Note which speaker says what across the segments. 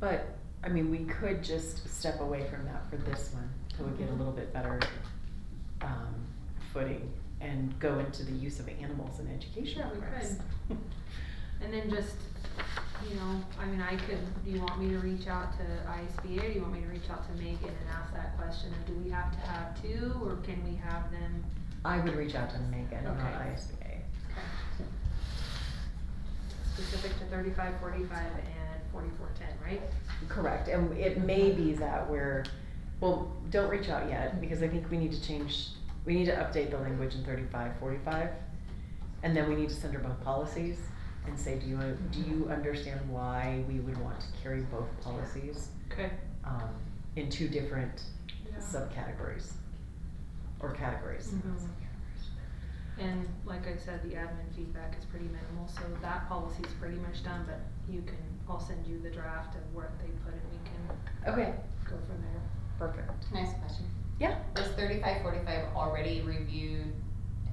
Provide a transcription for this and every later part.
Speaker 1: But, I mean, we could just step away from that for this one, till we get a little bit better, um, footing and go into the use of animals in education
Speaker 2: Sure, we
Speaker 1: programs.
Speaker 2: And then just, you know, I mean, I could, do you want me to reach out to ISBA, or do you want me to reach out to Megan and ask that question, of do we have to have two, or can we have them?
Speaker 1: I would reach out to Megan, not
Speaker 2: Okay.
Speaker 1: ISBA.
Speaker 2: Okay. Specific to thirty-five, forty-five, and forty-four, ten, right?
Speaker 1: Correct, and it may be that we're, well, don't reach out yet, because I think we need to change, we need to update the language in thirty-five, forty-five. And then we need to send her both policies and say, do you, do you understand why we would want to carry both policies?
Speaker 2: Okay.
Speaker 1: Um, in two different subcategories, or categories.
Speaker 2: Mhm. And like I said, the admin feedback is pretty minimal, so that policy's pretty much done, but you can, I'll send you the draft of what they put, and we can
Speaker 1: Okay,
Speaker 2: go from there.
Speaker 1: perfect.
Speaker 3: Can I ask a question?
Speaker 1: Yeah.
Speaker 3: Was thirty-five, forty-five already reviewed?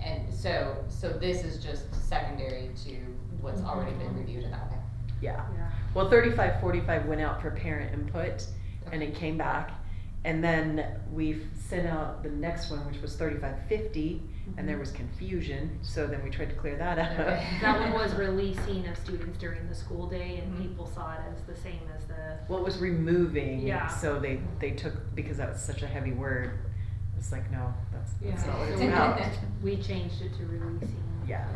Speaker 3: And so, so this is just secondary to
Speaker 2: Mm-hmm.
Speaker 3: what's already been reviewed and that,
Speaker 1: Yeah,
Speaker 2: Yeah.
Speaker 1: well, thirty-five, forty-five went out for parent input, and
Speaker 3: okay?
Speaker 1: it came back. And then we sent out the next one, which was thirty-five fifty, and there was confusion, so then we tried to clear that up.
Speaker 3: Okay.
Speaker 2: Mm-hmm. That one was releasing of students during the school day and
Speaker 4: Mm-hmm.
Speaker 3: Mhm.
Speaker 2: people saw it as the same as the,
Speaker 1: Well, it was removing,
Speaker 2: Yeah.
Speaker 1: so they, they took, because that was such a heavy word, it's like, no, that's, that's
Speaker 2: Yeah.
Speaker 1: not what it's
Speaker 2: So-
Speaker 1: about.
Speaker 2: we changed it to releasing.
Speaker 1: Yeah.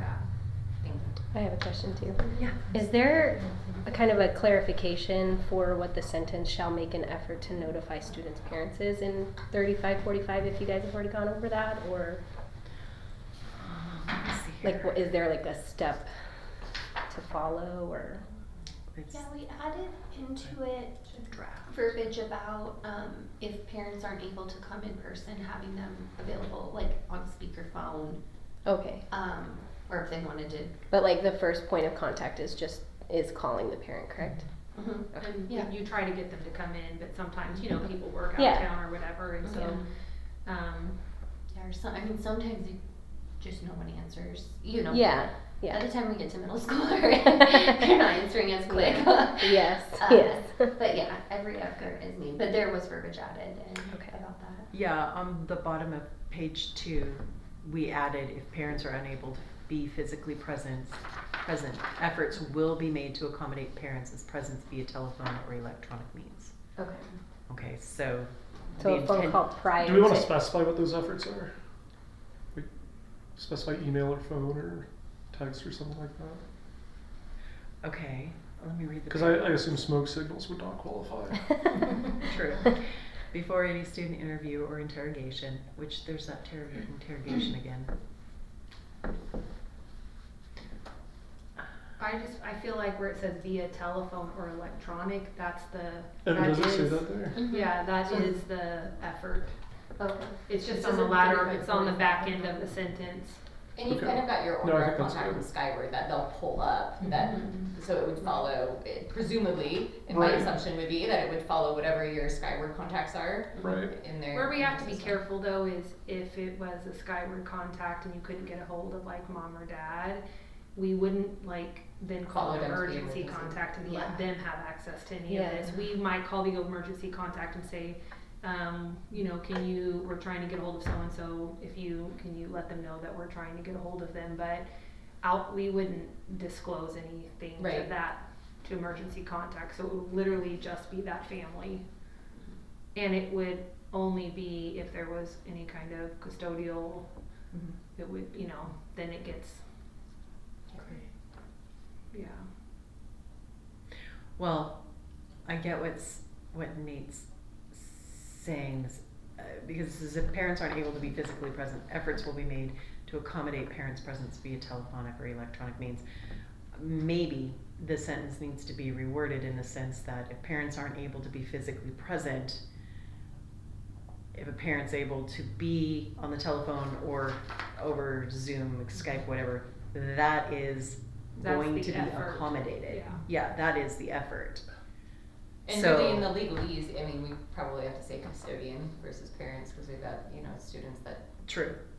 Speaker 3: Thank you.
Speaker 5: I have a question too.
Speaker 1: Yeah.
Speaker 5: Is there a kind of a clarification for what the sentence shall make an effort to notify students' parents is in thirty-five, forty-five, if you guys have already gone over that, or
Speaker 1: Let me see
Speaker 5: like, what,
Speaker 1: here.
Speaker 5: is there like a step to follow, or?
Speaker 1: It's
Speaker 6: Yeah, we added into it
Speaker 1: draft.
Speaker 6: verbiage about, um, if parents aren't able to come in person, having them available, like on speakerphone,
Speaker 5: Okay,
Speaker 6: um, or if they wanted to.
Speaker 5: but like the first point of contact is just, is calling the parent, correct?
Speaker 6: Mhm.
Speaker 2: And
Speaker 6: Yeah.
Speaker 2: you try to get them to come in, but sometimes, you know, people work out of
Speaker 5: Yeah.
Speaker 2: town or whatever, and so, um,
Speaker 6: Yeah, or some, I mean, sometimes you, just no one answers, you know.
Speaker 5: Yeah,
Speaker 6: By
Speaker 5: yeah,
Speaker 6: the time we get to middle school, they're not answering as quick.
Speaker 5: yes,
Speaker 6: Uh,
Speaker 5: yes.
Speaker 6: But yeah, every effort is needed, but there was verbiage added and
Speaker 5: Okay.
Speaker 6: about that.
Speaker 1: Yeah, on the bottom of page two, we added if parents are unable to be physically present, present, efforts will be made to accommodate parents' as presence via telephone or electronic means.
Speaker 5: Okay,
Speaker 1: Okay, so.
Speaker 5: so
Speaker 1: the
Speaker 5: a phone
Speaker 1: intent-
Speaker 5: call prior to.
Speaker 4: Do we wanna specify what those efforts are? We Specify email or phone or text or something like that?
Speaker 1: Okay, let me read the.
Speaker 4: Cause I, I assume smoke signals would not qualify.
Speaker 1: True. Before any student interview or interrogation, which there's that ter- interrogation again.
Speaker 2: I just, I feel like where it says via telephone or electronic, that's the,
Speaker 4: And
Speaker 2: that
Speaker 4: does it say
Speaker 2: is,
Speaker 4: that there?
Speaker 2: yeah, that
Speaker 6: Mhm.
Speaker 2: is the effort.
Speaker 6: Okay.
Speaker 2: It's
Speaker 6: This
Speaker 2: just on the
Speaker 6: isn't
Speaker 2: latter,
Speaker 6: 35,
Speaker 2: it's on the back
Speaker 6: 45.
Speaker 2: end of the sentence.
Speaker 3: And you
Speaker 4: Okay.
Speaker 3: kind of got your
Speaker 4: No, I
Speaker 3: order of
Speaker 4: think that's
Speaker 3: contact from
Speaker 4: good.
Speaker 3: Skyward that they'll pull up,
Speaker 2: Mm-hmm.
Speaker 3: that,
Speaker 6: Mm-hmm.
Speaker 3: so it would follow, it- presumably, and my
Speaker 4: Right.
Speaker 3: assumption would be that it would follow whatever your Skyward contacts are
Speaker 4: Right,
Speaker 3: in there.
Speaker 2: Where we have to be careful though is if it was a Skyward contact and you couldn't get a hold of like mom or dad, we wouldn't like then call
Speaker 3: Follow
Speaker 2: an
Speaker 3: them to the
Speaker 2: emergency
Speaker 3: emergency.
Speaker 2: contact and let
Speaker 6: Yeah.
Speaker 2: them have access to any
Speaker 5: Yeah.
Speaker 2: of this. We might call the emergency contact and say, um, you know, can you, we're trying to get a hold of so and so. If you, can you let them know that we're trying to get a hold of them? But out, we wouldn't disclose anything to
Speaker 3: Right.
Speaker 2: that, to emergency contact. So it would literally just be that family. And it would only be if there was any kind of custodial,
Speaker 3: Mm-hmm.
Speaker 2: it would, you know, then it gets, yeah.
Speaker 1: Well, I get what's what Nate's saying is, uh, because this is if parents aren't able to be physically present, efforts will be made to accommodate parents' presence via telephonic or electronic means. Maybe the sentence needs to be reworded in the sense that if parents aren't able to be physically present, if a parent's able to be on the telephone or over Zoom, Skype, whatever, that is
Speaker 2: That's
Speaker 1: going
Speaker 2: the
Speaker 1: to be
Speaker 2: effort.
Speaker 1: accommodated.
Speaker 2: Yeah.
Speaker 1: Yeah, that is the effort.
Speaker 3: And
Speaker 1: So-
Speaker 3: really in the legalese, I mean, we probably have to say custodian versus parents, cause we've got, you know, students that
Speaker 1: True.